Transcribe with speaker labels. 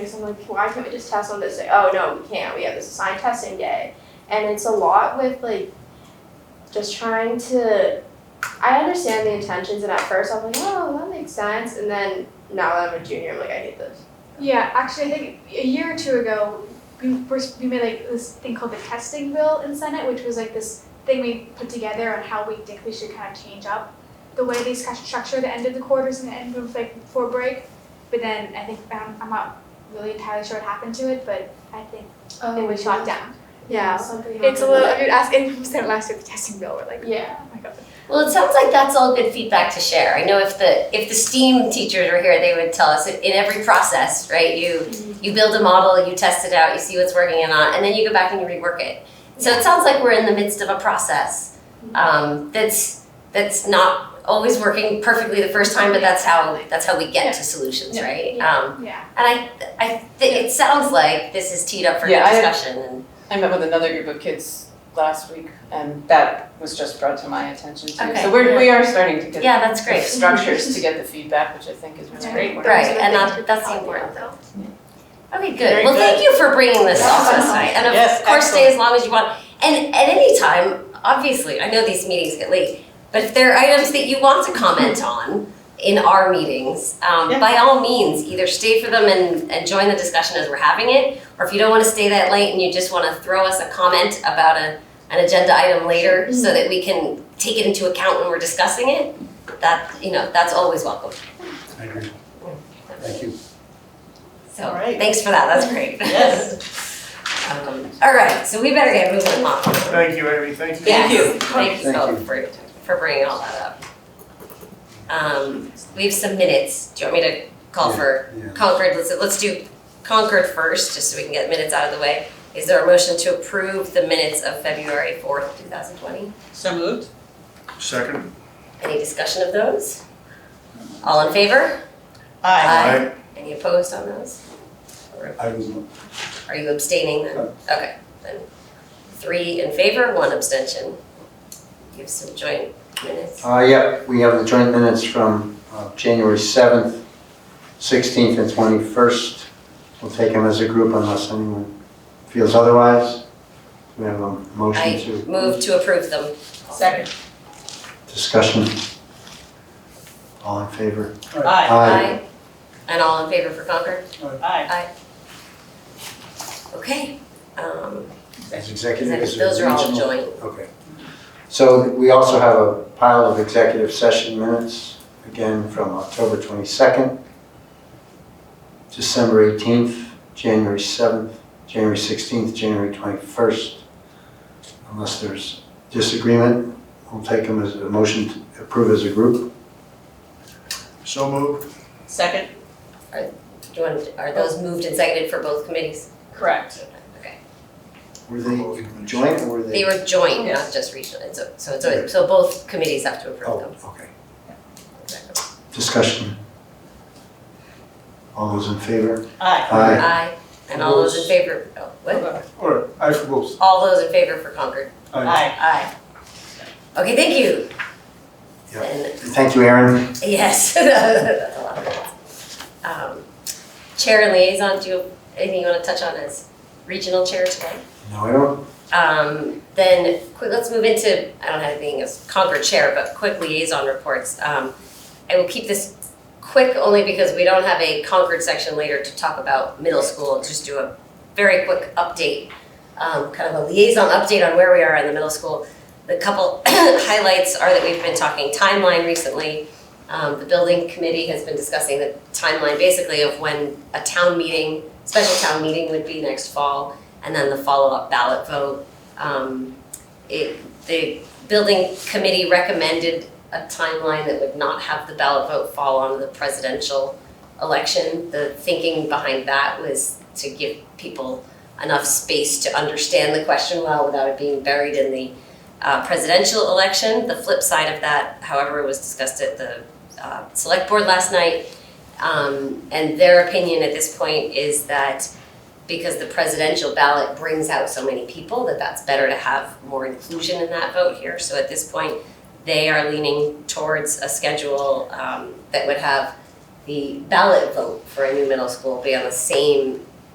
Speaker 1: So I'm like, why can't we just test on this day? Oh no, we can't. We have this assigned testing day, and it's a lot with like just trying to. I understand the intentions, and at first I'm like, oh, that makes sense, and then now that I'm a junior, I'm like, I hate this.
Speaker 2: Yeah, actually, I think a year or two ago, we, were- we made like this thing called the testing bill in Senate, which was like this thing we put together on how we think we should kind of change up the way they scu- structure the end of the quarters and the end of like before break. But then I think um, I'm not really entirely sure what happened to it, but I think
Speaker 3: Oh,
Speaker 2: it was shot down.
Speaker 1: Oh, Yeah, something.
Speaker 2: It's a
Speaker 1: happened.
Speaker 2: little. If you ask anyone from Senate last year, the testing bill, we're like,
Speaker 1: Yeah.
Speaker 2: oh my god.
Speaker 3: Well, it sounds like that's all good feedback to share. I know if the if the STEAM teachers were here, they would tell us in every process, right? You you build a model, you test it out, you see what's working and not, and then you go back and you rework it. So it sounds like we're in the midst of a process um, that's that's not always working perfectly the first time, but that's how that's how we get to solutions,
Speaker 1: Yeah.
Speaker 3: right?
Speaker 1: Yeah.
Speaker 3: Um,
Speaker 2: Yeah.
Speaker 3: and I I th- it sounds like this is teed up for
Speaker 4: Yeah, I-
Speaker 3: discussion. and
Speaker 4: I met with another group of kids last week, and that was just brought to my attention too.
Speaker 3: Okay.
Speaker 4: So we're, we are starting to get
Speaker 3: yeah, that's
Speaker 4: the
Speaker 3: great.
Speaker 4: structures to get the feedback, which I think is
Speaker 2: Yeah.
Speaker 4: really important.
Speaker 3: Right,
Speaker 2: So
Speaker 3: and
Speaker 2: they
Speaker 3: that-
Speaker 2: should
Speaker 3: that's
Speaker 2: probably
Speaker 3: important.
Speaker 2: help.
Speaker 3: Okay, good.
Speaker 4: Very
Speaker 3: well,
Speaker 4: good.
Speaker 3: thank you for bringing this
Speaker 1: Yes.
Speaker 3: off to us tonight. And of
Speaker 4: Yes,
Speaker 3: course, stay as long as you want. And at any time, obviously, I know these meetings get late, but if there are items that you want to comment on in our meetings, um,
Speaker 4: Yeah.
Speaker 3: by all means, either stay for them and, and join the discussion as we're having it, or if you don't want to stay that late and you just want to throw us a comment about a, an agenda item later so that we can take it into account when we're discussing it, that, you know, that's always welcome.
Speaker 5: I agree. Thank you.
Speaker 3: So,
Speaker 4: All right.
Speaker 3: thanks for that. That's great.
Speaker 4: Yes.
Speaker 3: Um, All right, so we better get moving along.
Speaker 6: Thank you, Amy, thank you.
Speaker 3: Yes,
Speaker 4: you.
Speaker 3: Thank you
Speaker 5: Thank
Speaker 3: both
Speaker 5: you.
Speaker 3: for, for bringing all that up. Um, we have some minutes. Do you want me to call for
Speaker 5: Yeah.
Speaker 3: Concord? Let's, let's do Concord first, just so we can get minutes out of the way. Is there a motion to approve the minutes of February fourth, two thousand twenty?
Speaker 4: So moved?
Speaker 6: Second?
Speaker 3: Any discussion of those? All in favor?
Speaker 4: Aye.
Speaker 6: Aye.
Speaker 3: Any opposed on those? Or
Speaker 5: I was, not-
Speaker 3: Are you abstaining then? Okay, then three in favor, one abstention. Give some joint minutes.
Speaker 7: Uh, yeah, we have the joint minutes from, uh, January seventh, sixteenth, and twenty-first. We'll take them as a group unless anyone feels otherwise. We have a motion
Speaker 3: I
Speaker 7: to
Speaker 3: move to approve them.
Speaker 4: Second?
Speaker 7: discussion. All in favor?
Speaker 4: Aye.
Speaker 3: Aye. And all in favor for Concord?
Speaker 4: Aye.
Speaker 3: Okay, um,
Speaker 7: As
Speaker 3: is
Speaker 7: executive,
Speaker 3: that-
Speaker 7: as a
Speaker 3: those are all
Speaker 7: regional-
Speaker 3: joint.
Speaker 7: Okay. So we also have a pile of executive session minutes, again from October 22nd, December 18th, January 7th, January 16th, January 21st. Unless there's disagreement, we'll take them as a motion to approve as a group.
Speaker 6: So moved?
Speaker 4: Second?
Speaker 3: Do you want, are those moved and seconded for both committees?
Speaker 4: Correct.
Speaker 3: Okay.
Speaker 7: Were they joint or were they?
Speaker 3: They were joint, not
Speaker 4: Yes.
Speaker 3: just regional, and so, so it's, so both committees have to approve
Speaker 7: Oh,
Speaker 3: them.
Speaker 7: okay.
Speaker 3: Exactly.
Speaker 7: Discussion. All those in favor?
Speaker 4: Aye.
Speaker 7: Aye.
Speaker 3: Aye, and all those in favor, oh, what?
Speaker 5: or I suppose.
Speaker 3: All those in favor for Concord?
Speaker 4: Aye.
Speaker 3: Aye. Okay, thank you.
Speaker 7: Yeah.
Speaker 3: And
Speaker 7: Thank you, Aaron.
Speaker 3: yes, that's a lot of words. Um, Chair and liaison, do you, have anything you want to touch on as regional chair today?
Speaker 7: No, I don't.
Speaker 3: Um, then quick, let's move into, I don't have anything as Concord chair, but quick liaison reports. Um, I will keep this quick only because we don't have a Concord section later to talk about middle school. Just do a very quick update, um, kind of a liaison update on where we are in the middle school. The couple highlights are that we've been talking timeline recently. Um, the building committee has been discussing the timeline basically of when a town meeting, special town meeting would be next fall, and then the follow-up ballot vote. Um, it, the building committee recommended a timeline that would not have the ballot vote fall onto the presidential election. The thinking behind that was to give people enough space to understand the question well without it being buried in the uh, presidential election. The flip side of that, however, was discussed at the uh, select board last night. Um, and their opinion at this point is that because the presidential ballot brings out so many people that that's better to have more inclusion in that vote here. So at this point, they are leaning towards a schedule um, that would have the ballot vote for a new middle school be on the same